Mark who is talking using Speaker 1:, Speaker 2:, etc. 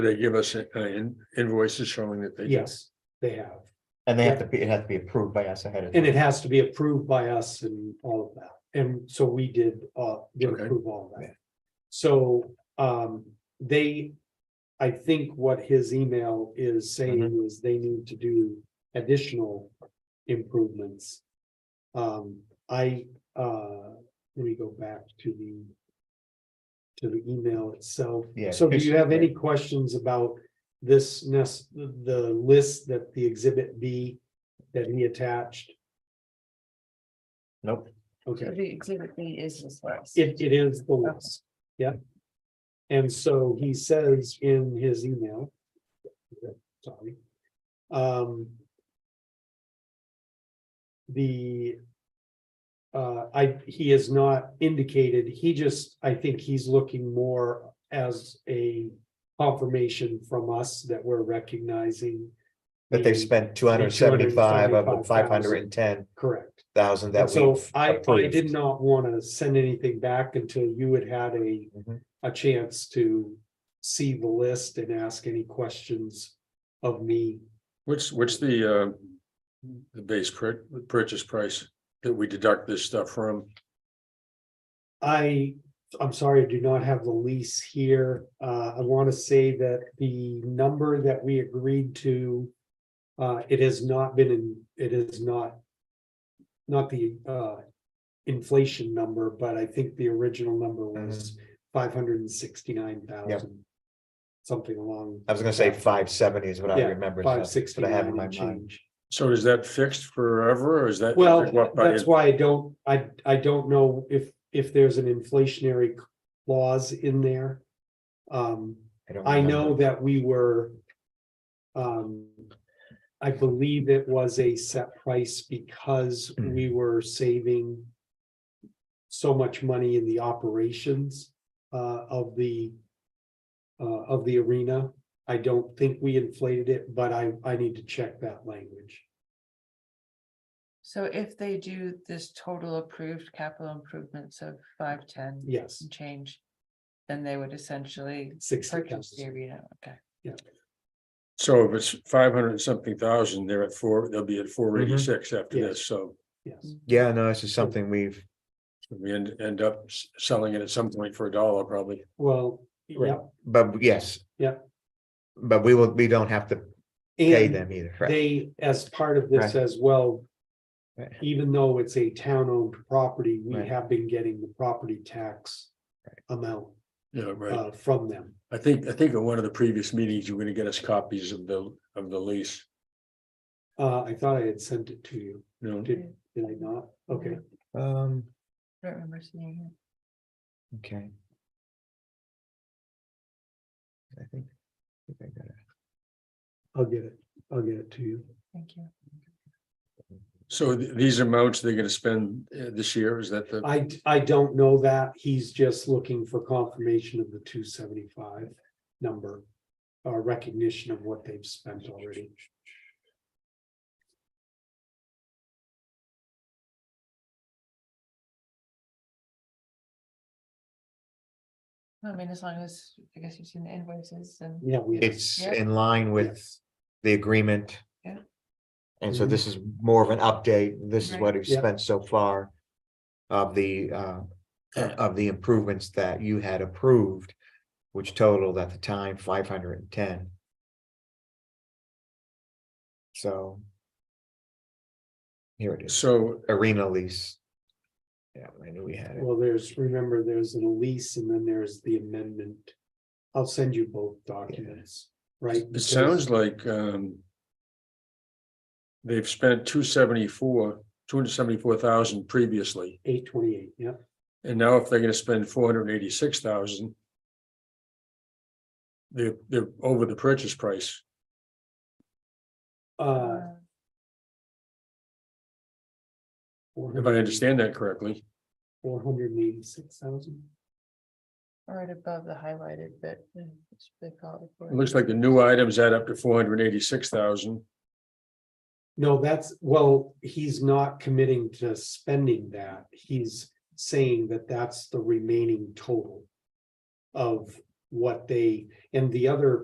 Speaker 1: They give us uh, in- invoices showing that they. did.
Speaker 2: Yes, they have.
Speaker 3: And they have to be, it has to be approved by us ahead of.
Speaker 2: And
Speaker 3: time.
Speaker 2: it has to be approved by us and all of that. And so we did, uh, did
Speaker 1: Okay.
Speaker 2: approve all of that. So, um, they, I think what his email is
Speaker 1: Mm-hmm.
Speaker 2: saying is they need to do additional improvements. Um, I, uh, let me go back to the to the email itself.
Speaker 3: Yeah,
Speaker 2: So do you have any
Speaker 3: basically.
Speaker 2: questions about this nest, the list that the exhibit B that he attached?
Speaker 3: Nope,
Speaker 2: Okay,
Speaker 4: The exhibit B is this last.
Speaker 2: it, it is the list, yeah. And so he says in his email. Sorry. Um. The. Uh, I, he has not indicated, he just, I think he's looking more as a confirmation from us that we're recognizing.
Speaker 3: but they
Speaker 2: the-
Speaker 3: spent two hundred and seventy-five of the five
Speaker 2: $275,000.
Speaker 3: hundred and ten
Speaker 2: Correct.
Speaker 3: thousand that
Speaker 2: And
Speaker 3: we.
Speaker 2: So I, I did not want to send anything back until you had had a,
Speaker 3: Mhm.
Speaker 2: a chance to see the list and ask any questions of me.
Speaker 1: What's, what's the, uh, the base cur- purchase price that we deduct this stuff from?
Speaker 2: I, I'm sorry, I do not have the lease here. Uh, I want to say that the number that we agreed to, uh, it has not been in, it is not, not the, uh, inflation number, but I think the original number
Speaker 3: Mm-hmm.
Speaker 2: was five hundred and sixty-nine thousand. Something along.
Speaker 3: I was gonna say five seventy is what I
Speaker 2: Yeah,
Speaker 3: remember. so
Speaker 2: Five
Speaker 3: that's uh, what I have
Speaker 2: sixty-nine
Speaker 3: in my
Speaker 2: and
Speaker 3: mind.
Speaker 2: change.
Speaker 1: So is that fixed forever or is that?
Speaker 2: Well,
Speaker 1: what by
Speaker 2: that's why I don't, I, I don't know if, if there's an inflationary clause in there. Um,
Speaker 3: don't
Speaker 2: I know
Speaker 3: remember.
Speaker 2: that we were. Um, I believe it was a set price because
Speaker 3: Mm.
Speaker 2: we were saving. So much money in the operations uh of the. Uh, of the arena. I don't think we inflated it, but I I need to check that language.
Speaker 4: So if they do this total approved capital improvements of five, ten.
Speaker 2: Yes,
Speaker 4: and Change, then they would essentially
Speaker 2: sixty
Speaker 4: purchase the
Speaker 2: thousand.
Speaker 4: arena, okay.
Speaker 1: So if it's five hundred and something thousand, they're at four, they'll be at four
Speaker 2: Mm-hmm.
Speaker 1: eighty-six after
Speaker 2: Yeah.
Speaker 1: this, so
Speaker 2: Yes,
Speaker 3: Yeah, no, this is something we've,
Speaker 1: we end, end up s- selling it at some point for a dollar probably.
Speaker 2: well, yeah,
Speaker 3: but yes.
Speaker 2: Yeah.
Speaker 3: But we will, we don't have to pay
Speaker 2: and
Speaker 3: them either, right?
Speaker 2: they, as part of this as well,
Speaker 3: Right.
Speaker 2: even though it's a town-owned property, we
Speaker 3: Right.
Speaker 2: have been getting the property tax amount
Speaker 1: Yeah, right.
Speaker 2: uh from them.
Speaker 1: I think, I think at one of the previous meetings, you were gonna get us copies of the, of the lease.
Speaker 2: Uh, I thought I had sent it to you.
Speaker 1: you know?
Speaker 2: Did, did I not? Okay,
Speaker 3: Um,
Speaker 4: I Don't remember seeing it.
Speaker 3: okay. I think. I think I got it.
Speaker 2: I'll get it. I'll get it to you.
Speaker 4: Thank you.
Speaker 1: So th- these amounts they're gonna spend uh, this year, is that the,
Speaker 2: I, I don't know that. He's just looking for confirmation of the two seventy-five number. Or recognition of what they've spent already.
Speaker 4: I mean, as long as, I guess you've seen the invoices and.
Speaker 2: Yeah, we.
Speaker 3: It's
Speaker 4: Yeah.
Speaker 3: in line with
Speaker 2: Yes.
Speaker 3: the agreement.
Speaker 4: Yeah.
Speaker 3: And so
Speaker 2: Mhm.
Speaker 3: this is more of an update. This is
Speaker 4: Right.
Speaker 3: what we've
Speaker 2: Yeah.
Speaker 3: spent so far. Of the uh, of the improvements that you had approved, which totaled at the time five hundred and ten. So. Here it is,
Speaker 1: so
Speaker 3: arena lease. Yeah, I knew we had it.
Speaker 2: Well, there's, remember, there's an lease and then there's the amendment. I'll send you both documents, right?
Speaker 1: it sounds like, um. They've spent two seventy-four, two hundred seventy-four thousand previously,
Speaker 2: Eight twenty-eight, yeah.
Speaker 1: and now if they're gonna spend four hundred eighty-six thousand. They're, they're over the purchase price,
Speaker 2: Uh,
Speaker 1: if I understand that correctly.
Speaker 2: Four hundred and eighty-six thousand.
Speaker 4: Right above the highlighted bit. yeah, which they call
Speaker 1: It looks like the new items add up to four hundred eighty-six thousand.
Speaker 2: No, that's, well, he's not committing to spending that. He's saying that that's the remaining total. Of what they, and the other